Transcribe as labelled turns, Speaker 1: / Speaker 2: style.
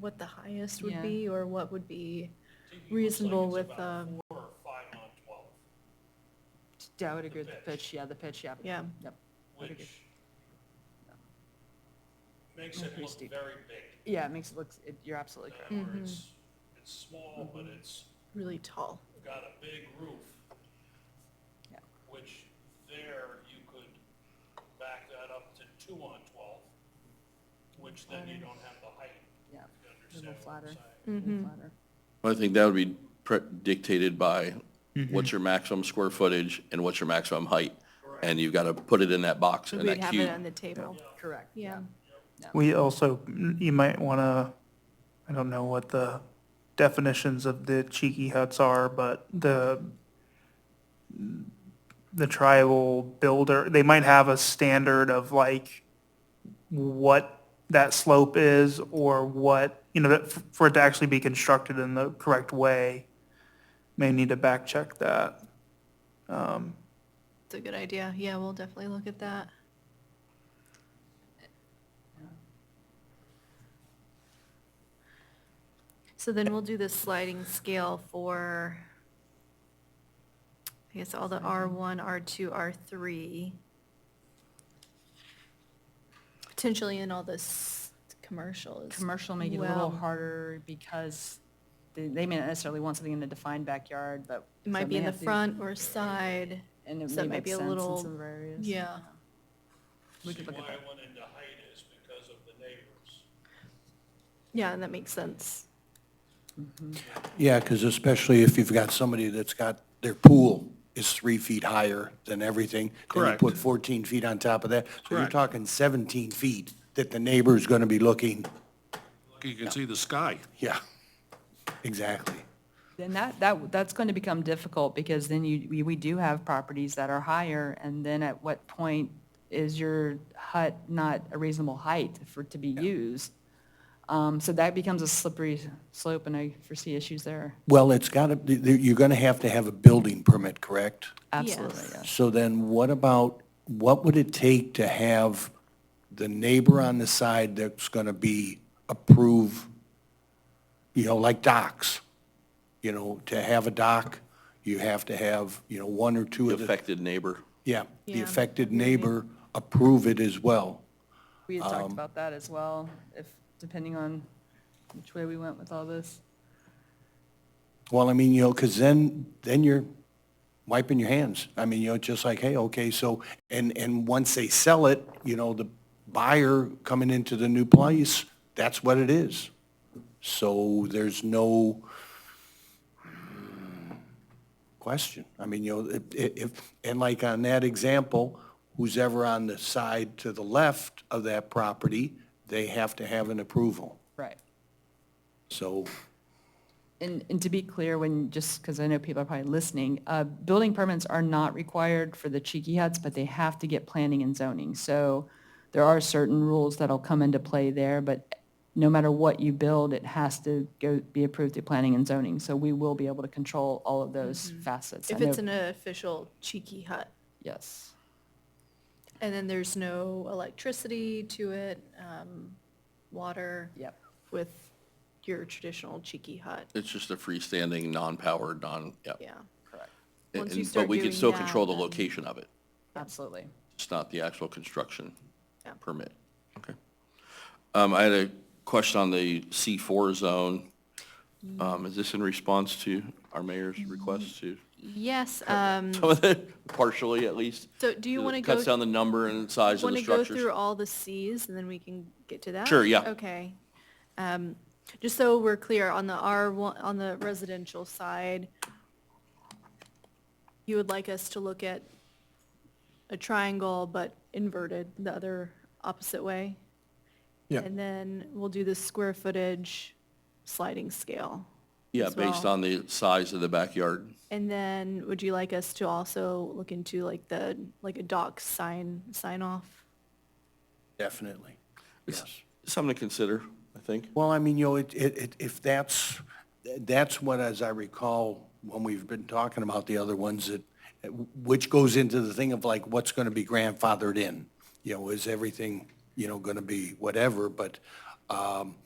Speaker 1: what the highest would
Speaker 2: Yeah.
Speaker 1: be or what would be,
Speaker 3: Typically,
Speaker 1: Reasonable
Speaker 3: it's
Speaker 1: with,
Speaker 3: like it's about
Speaker 1: um,
Speaker 3: Four or five on twelve,
Speaker 2: Yeah, I would agree with
Speaker 3: The
Speaker 2: the
Speaker 3: pitch.
Speaker 2: pitch, yeah, the pitch, yeah.
Speaker 1: Yeah.
Speaker 2: Yep. Very good.
Speaker 3: which makes it
Speaker 2: Pretty
Speaker 3: look
Speaker 2: steep.
Speaker 3: very big.
Speaker 2: Yeah, it makes it look, it- you're absolutely
Speaker 3: uh,
Speaker 2: correct.
Speaker 3: where
Speaker 1: Mhm.
Speaker 3: It's, it's small, but it's
Speaker 1: really tall.
Speaker 3: got a big roof.
Speaker 2: Yeah.
Speaker 3: Which there you could back that up to two on twelve, which then you don't have the height,
Speaker 2: Yeah, a
Speaker 3: you
Speaker 2: little
Speaker 3: understand what I'm
Speaker 2: flatter.
Speaker 3: saying?
Speaker 2: a
Speaker 1: Mm-hmm.
Speaker 2: little flatter.
Speaker 4: I think that would be pre- dictated by what's your maximum square footage and what's your maximum height? And you've got to put it in that box and
Speaker 1: We'd
Speaker 4: that
Speaker 1: have it
Speaker 4: cube.
Speaker 1: on the table.
Speaker 2: Correct,
Speaker 1: Yeah.
Speaker 2: yeah.
Speaker 5: We also, you might want to, I don't know what the definitions of the cheeky huts are, but the, the tribal builder, they might have a standard of like what that slope is or what, you know, that for it to actually be constructed in the correct way, may need to back check that.
Speaker 1: It's a good idea. Yeah, we'll definitely look at that. So then we'll do the sliding scale for, I guess, all the R1, R2, R3. Potentially in all this commercial as
Speaker 2: Commercial make it a little
Speaker 1: well.
Speaker 2: harder because they, they may not necessarily want something in the defined backyard, but.
Speaker 1: It
Speaker 2: so
Speaker 1: might be
Speaker 2: may
Speaker 1: in the
Speaker 2: have to-
Speaker 1: front or side.
Speaker 2: And it
Speaker 1: so it
Speaker 2: may
Speaker 1: might
Speaker 2: make
Speaker 1: be a
Speaker 2: sense in
Speaker 1: little-
Speaker 2: some areas.
Speaker 1: Yeah.
Speaker 2: We could look at
Speaker 3: See, why I
Speaker 2: that.
Speaker 3: went into height is because of the neighbors.
Speaker 1: Yeah, and that makes sense.
Speaker 6: Yeah, because especially if you've got somebody that's got, their pool is three feet higher than everything.
Speaker 4: Correct.
Speaker 6: Then you put 14 feet on top of that. So you're
Speaker 7: Correct.
Speaker 6: talking 17 feet that the neighbor's going to be looking.
Speaker 7: You can see the sky.
Speaker 6: Yeah, exactly.
Speaker 2: Then that, that, that's going to become difficult because then you, we- we do have properties that are higher. And then at what point is your hut not a reasonable height for it to be used? Um, so that becomes a slippery slope and I foresee issues there.
Speaker 6: Well, it's got to, you're going to have to have a building permit, correct?
Speaker 2: Absolutely,
Speaker 1: Yes.
Speaker 2: yeah.
Speaker 6: So then what about, what would it take to have the neighbor on the side that's going to be approve, you know, like docks? You know, to have a dock, you have to have, you know, one or two
Speaker 4: The
Speaker 6: of the,
Speaker 4: affected neighbor.
Speaker 6: yeah, the
Speaker 1: Yeah.
Speaker 6: affected neighbor approve it as well.
Speaker 2: We had talked about that as well, if, depending on which way we went with all this.
Speaker 6: Well, I mean, you know, because then, then you're wiping your hands. I mean, you know, just like, hey, okay, so, and, and once they sell it, you know, the buyer coming into the new place, that's what it is. So there's no question. I mean, you know, if, if, and like on that example, who's ever on the side to the left of that property, they have to have an approval.
Speaker 2: Right.
Speaker 6: So
Speaker 2: And, and to be clear, when, just because I know people are probably listening, uh, building permits are not required for the cheeky huts, but they have to get planning and zoning. So there are certain rules that'll come into play there, but no matter what you build, it has to go, be approved through planning and zoning. So we will be able to control all of those facets. I
Speaker 1: Mm-hmm. If it's
Speaker 2: know-
Speaker 1: an official cheeky hut.
Speaker 2: Yes.
Speaker 1: And then there's no electricity to it, um, water
Speaker 2: Yep.
Speaker 1: with your traditional cheeky hut,
Speaker 4: It's just a freestanding, non-powered, non, yeah.
Speaker 1: yeah.
Speaker 4: And-
Speaker 1: Once you
Speaker 4: and-
Speaker 1: start
Speaker 4: But we
Speaker 1: doing
Speaker 4: can still
Speaker 1: that,
Speaker 4: control the
Speaker 1: then-
Speaker 4: location of it.
Speaker 2: Absolutely.
Speaker 4: It's not the actual construction
Speaker 1: Yeah.
Speaker 4: permit. Okay. Um, I had a question on the C4 zone.
Speaker 1: Mm.
Speaker 4: Um, is this in response to our mayor's request to,
Speaker 1: Yes, um,
Speaker 4: some of the, partially at least?
Speaker 1: so do you
Speaker 4: It
Speaker 1: want to
Speaker 4: Cuts down
Speaker 1: go,
Speaker 4: the number and size of
Speaker 1: want
Speaker 4: the
Speaker 1: to go
Speaker 4: structures.
Speaker 1: through all the Cs and then we can get to that?
Speaker 4: Sure, yeah.
Speaker 1: Okay. Um, Just so we're clear, on the R1, on the residential side, you would like us to look at a triangle but inverted, the other opposite way?
Speaker 6: Yeah.
Speaker 1: And then we'll do the square footage sliding scale.
Speaker 4: Yeah,
Speaker 1: as
Speaker 4: based
Speaker 1: well.
Speaker 4: on the size of the backyard.
Speaker 1: And then would you like us to also look into like the, like a doc sign, sign off?
Speaker 6: definitely, yes.
Speaker 4: Something to consider, I think.
Speaker 6: Well, I mean, you know, it, it, it- if that's, that's what, as I recall, when we've been talking about the other ones, that, which goes into the thing of like, what's going to be grandfathered in? You know, is everything, you know, going to be whatever, but, um,